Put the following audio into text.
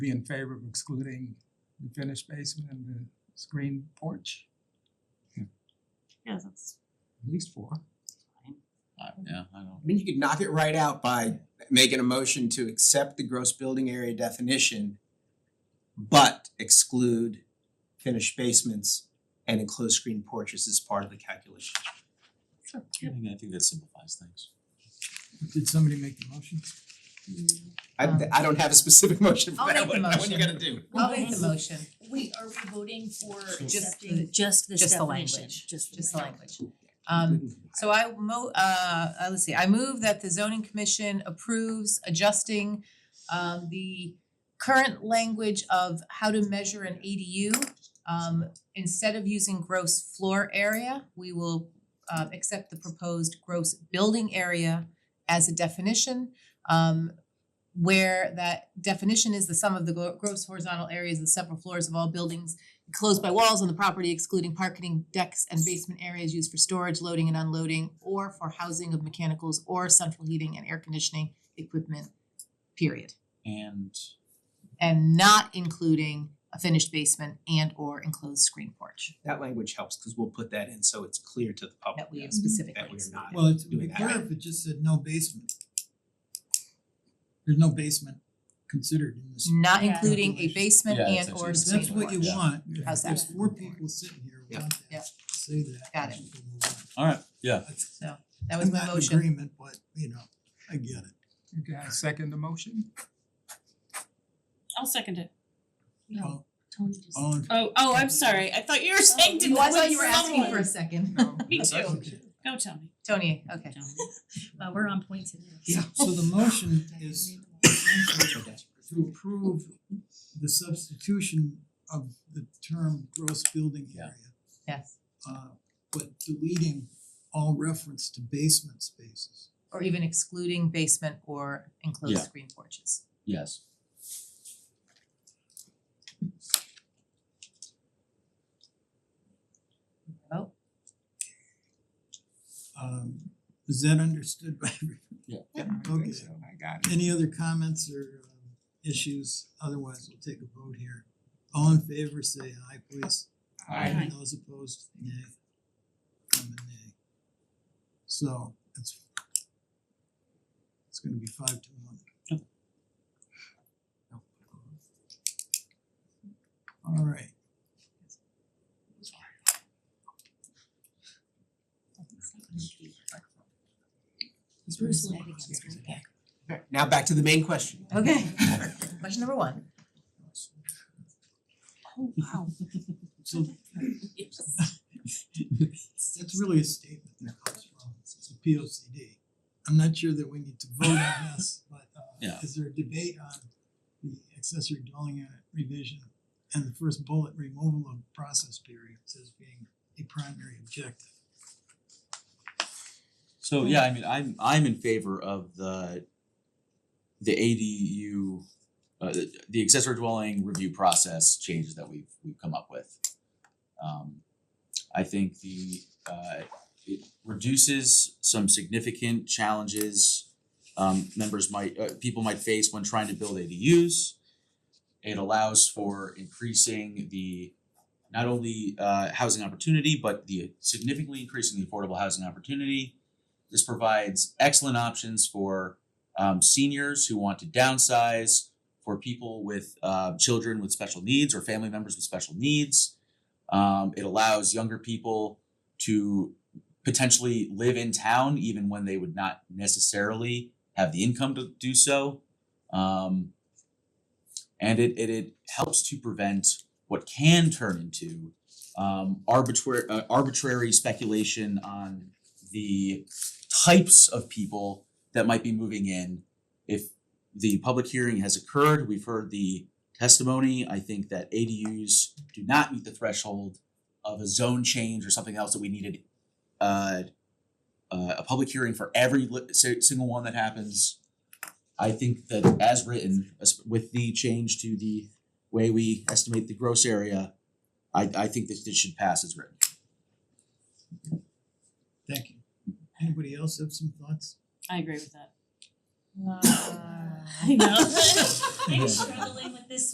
be in favor of excluding the finished basement and the screen porch? Yeah, that's At least four. fine. I- Yeah, I don't. I mean, you could knock it right out by making a motion to accept the gross building area definition, but exclude finished basements and enclosed screen porches as part of the calculation. I think I think that simplifies things. Did somebody make the motion? I Um, I don't have a specific motion for I'll that make the one, what you motion. gotta do? I'll make the motion, Wait, are we voting for just the, accepting? just this just the definition, language. just the language. Just the language. Um so I mo- uh uh, let's see, I move that the zoning commission approves adjusting um the current language of how to measure an ADU. Um instead of using gross floor area, we will uh accept the proposed gross building area as a definition. Um where that definition is the sum of the gro- gross horizontal areas of the several floors of all buildings enclosed by walls on the property excluding parking decks and basement areas used for storage, loading and unloading, or for housing of mechanicals or central heating and air conditioning equipment, period. And And not including a finished basement and or enclosed screen porch That language helps, cause we'll put that in so it's clear to the public that we Mm-hmm. have specifically. that we're not. Well, it's, it'd doing be that. better if it just said no basement. There's no basement considered in this. Not Yeah. including a basement Yeah, it's and or actually- If screen porch. that's what you want, if How's there's that? four people sitting here who Yeah. want Yeah. that, say that. Got it. and we'll move on. all right, yeah, That's- That was my I'm not in motion. agreement, but you know, I get it. Oh, Okay, I second the motion. I'll second it. Oh. All- Tony just. all in- Oh, oh, I'm sorry. I thought you were saying did Oh, I thought you were asking someone. for a second. No, Me too. okay. Go tell me. Tony, okay. Wow, we're on point today. So the motion is to approve the substitution of the term gross building Yeah. area. Yes. Uh, but deleting all reference to basement spaces. Or even excluding basement or enclosed Yeah. screen porches. yes. Oh, Um, is that understood by everyone? I Okay. think so, I got it. Any other comments or um, issues? Otherwise, we'll take a vote here. All in favor, say aye, please. Aye. And those opposed, nay. I'm a nay. So it's it's gonna be five to one. All right. Bruce led against me. Alright, Now back to the main question. Okay. Question number one. Oh, wow. So that's really a statement that comes from, it's a P O C D. I'm not sure that we need to vote on this, but uh Yeah. is there a debate on the accessory dwelling unit revision? And the first bullet, removal of process periods as being a primary objective. So yeah, I mean, I'm I'm in favor of the the ADU uh the- the accessory dwelling review process changes that we've we've come up with. Um I think the uh it reduces some significant challenges um members might uh people might face when trying to build ADUs. It allows for increasing the not only uh housing opportunity, but the significantly increasing the affordable housing opportunity. This provides excellent options for um, seniors who want to downsize, for people with uh, children with special needs or family members with special needs. Um, it allows younger people to potentially live in town even when they would not necessarily have the income to do so. Um, and it, it, it helps to prevent what can turn into um, arbitrary, uh, arbitrary speculation on the types of people that might be moving in. If the public hearing has occurred, we've heard the testimony, I think that ADUs do not meet the threshold of a zone change or something else that we needed uh uh a public hearing for every li- si- single one that happens. I think that as written, as- with the change to the way we estimate the gross area, I I think that this should pass as written. Thank you. Anybody else have some thoughts? I agree with that. Uh, I know. I'm struggling with this